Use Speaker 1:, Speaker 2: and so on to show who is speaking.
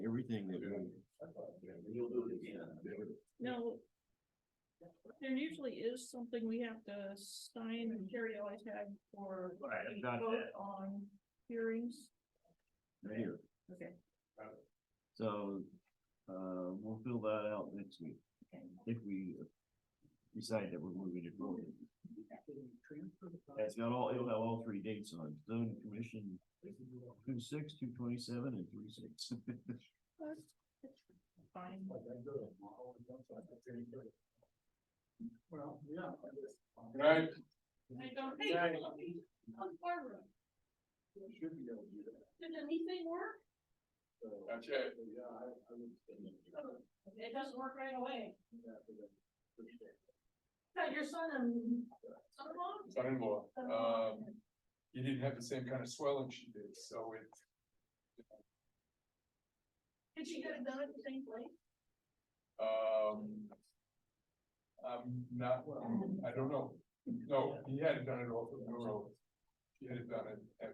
Speaker 1: everything that. You'll do it again.
Speaker 2: No. There usually is something we have to sign and carry always had for
Speaker 1: Right, I've
Speaker 2: a
Speaker 1: got
Speaker 2: vote
Speaker 1: that.
Speaker 2: on hearings.
Speaker 1: Right here.
Speaker 2: Okay.
Speaker 1: So, uh, we'll fill that out next week, if we decide that we're moving it forward. It's got all, it'll have all three dates on, it. zoning commission, two six, two twenty-seven, and three six.
Speaker 2: Fine.
Speaker 3: Well, yeah.
Speaker 4: Right.
Speaker 2: I don't think.
Speaker 3: Right.
Speaker 2: On Barbara,
Speaker 3: Should be able to do that.
Speaker 2: did anything work?
Speaker 4: That's it.
Speaker 3: Yeah, I, I would. think that-
Speaker 2: It doesn't work right away.
Speaker 3: that would have-
Speaker 2: Got your son and son-in-law?
Speaker 4: Son-in-law, um, he didn't have the same kind of swelling she did, so it,
Speaker 2: Did she get it done at the same place?
Speaker 4: um. I'm not, I don't know, no, he hadn't done it all, no, he had it done at, at